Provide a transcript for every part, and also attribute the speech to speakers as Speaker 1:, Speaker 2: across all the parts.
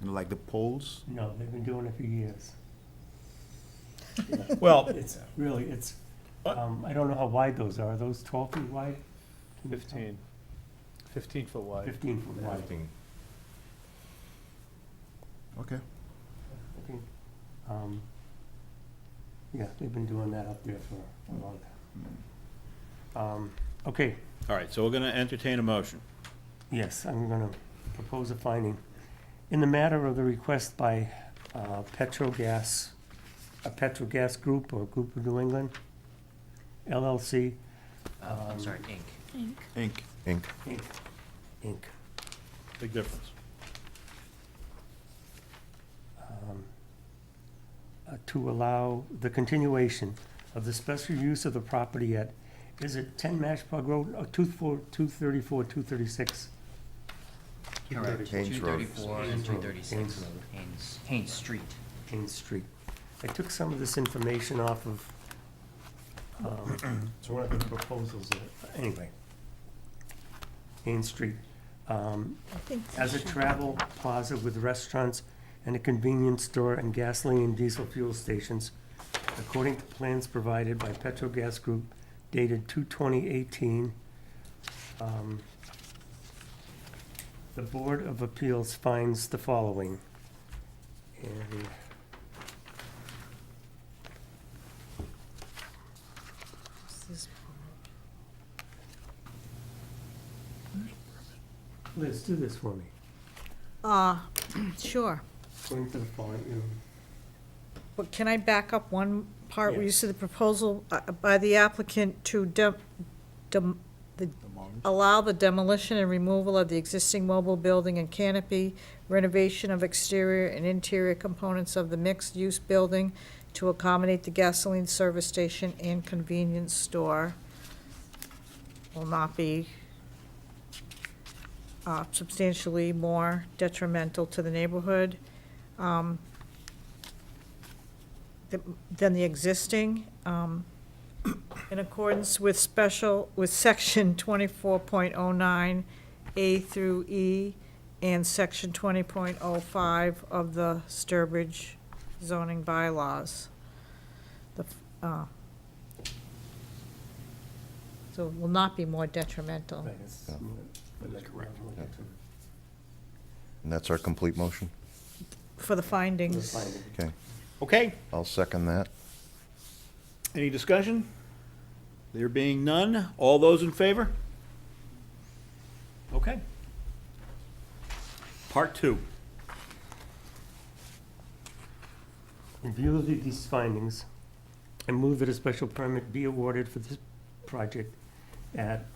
Speaker 1: You know, like the polls?
Speaker 2: No, they've been doing it for years.
Speaker 3: Well,
Speaker 2: It's really, it's, um, I don't know how wide those are. Are those twelve feet wide? Can you tell?
Speaker 3: fifteen, fifteen foot wide.
Speaker 2: Fifteen foot wide.
Speaker 1: Okay.
Speaker 2: I think, um, Yeah, they've been doing that up there for a long time. Um, Okay,
Speaker 4: All right, so we're going to entertain a motion.
Speaker 2: yes, I'm gonna propose a finding. In the matter of the request by uh, Petrogas, a Petrogas Group or Group of New England LLC, Um,
Speaker 5: Oh, I'm sorry, ink.
Speaker 1: Ink.
Speaker 6: Inc.
Speaker 2: Inc., Inc.
Speaker 4: Big difference.
Speaker 2: uh, to allow the continuation of the special use of the property at, is it 10 Mashpug Road, uh, or 24 234, 236?
Speaker 5: Correct.
Speaker 6: Haynes Road.
Speaker 5: 234 and
Speaker 2: Haynes Road.
Speaker 5: 236
Speaker 2: Haynes Road.
Speaker 5: Haynes, Haynes Street.
Speaker 2: Main Street. I took some of this information off of, um,
Speaker 7: So what are the proposals that
Speaker 2: anyway, Main Street, um,
Speaker 8: I think so.
Speaker 2: as a travel plaza with restaurants and a convenience store and gasoline and diesel fuel stations, according to plans provided by Petrogas Group dated 2/2018. um, The Board of Appeals finds the following. And
Speaker 8: This is-
Speaker 2: Liz, do this for me.
Speaker 8: Uh, sure.
Speaker 2: According to the following, you know,
Speaker 8: But can I back up one part where you
Speaker 2: Yes.
Speaker 8: said the proposal uh, by the applicant to dem, dem, the, allow the demolition and removal of the existing mobile building and canopy, renovation of exterior and interior components of the mixed-use building to accommodate the gasoline service station and convenience store will not be uh, substantially more detrimental to the neighborhood. Um, th- than the existing, um, in accordance with special, with section twenty-four point oh nine A through E and section twenty point oh five of the Sturbridge zoning bylaws. The, f- uh, So it will not be more detrimental.
Speaker 2: right, it's-
Speaker 6: Yeah.
Speaker 2: but like, um,
Speaker 6: yeah. And that's our complete motion?
Speaker 8: For the
Speaker 2: the
Speaker 8: findings.
Speaker 2: finding.
Speaker 6: Okay,
Speaker 4: Okay,
Speaker 6: I'll second that.
Speaker 4: any discussion? There being none, all those in favor? Okay. Part two.
Speaker 2: In view of the- these findings, I move that a special permit be awarded for this project at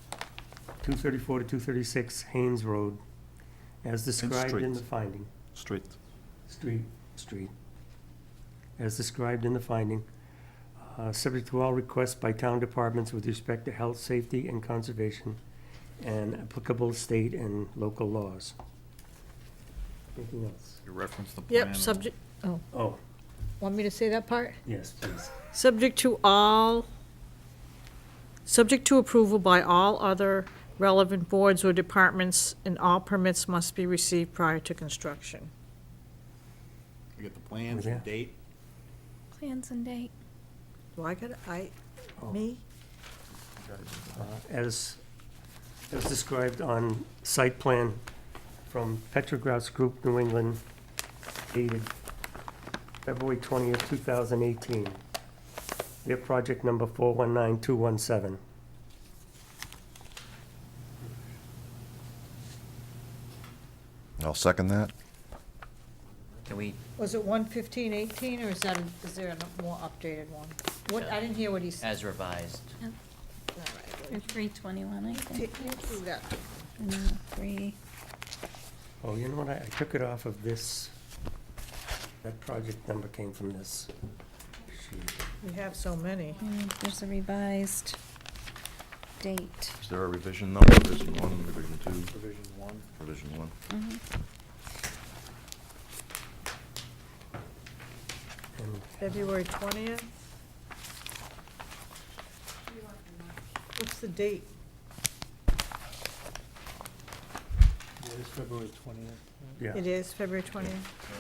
Speaker 2: 234 to 236 Haynes Road, as described in the
Speaker 1: street.
Speaker 2: finding.
Speaker 1: Street.
Speaker 2: Street. Street. As described in the finding, uh, subject to all requests by town departments with respect to health, safety, and conservation, and applicable state and local laws. Anything else?
Speaker 1: You reference the plan.
Speaker 8: Yep, subject, oh,
Speaker 2: Oh,
Speaker 8: want me to say that part?
Speaker 2: yes, please.
Speaker 8: Subject to all, subject to approval by all other relevant boards or departments, and all permits must be received prior to construction.
Speaker 4: We get the plans,
Speaker 2: Yeah.
Speaker 4: the date.
Speaker 9: Plans and date.
Speaker 8: Do I got, I, me?
Speaker 2: uh, as, as described on site plan from Petrogras Group, New England, dated February twentieth, two thousand eighteen. Their project number four one nine two one seven.
Speaker 6: I'll second that.
Speaker 5: Can we,
Speaker 8: Was it one fifteen eighteen, or is that, is there a more updated one? What, I didn't hear what he said.
Speaker 5: as revised,
Speaker 8: All right,
Speaker 9: Or three twenty-one, I
Speaker 8: well,
Speaker 9: think.
Speaker 8: take me through that.
Speaker 9: And then three.
Speaker 2: Oh, you know what, I I took it off of this, that project number came from this. sheet.
Speaker 8: We have so many.
Speaker 9: and There's a revised date.
Speaker 6: Is there a revision though? Revision one, revision two,
Speaker 3: Provision one.
Speaker 6: revision one?
Speaker 9: Mhm.
Speaker 2: And
Speaker 8: February twentieth? What's the date?
Speaker 2: What is
Speaker 3: February twentieth.
Speaker 2: yeah.
Speaker 8: It is February twentieth.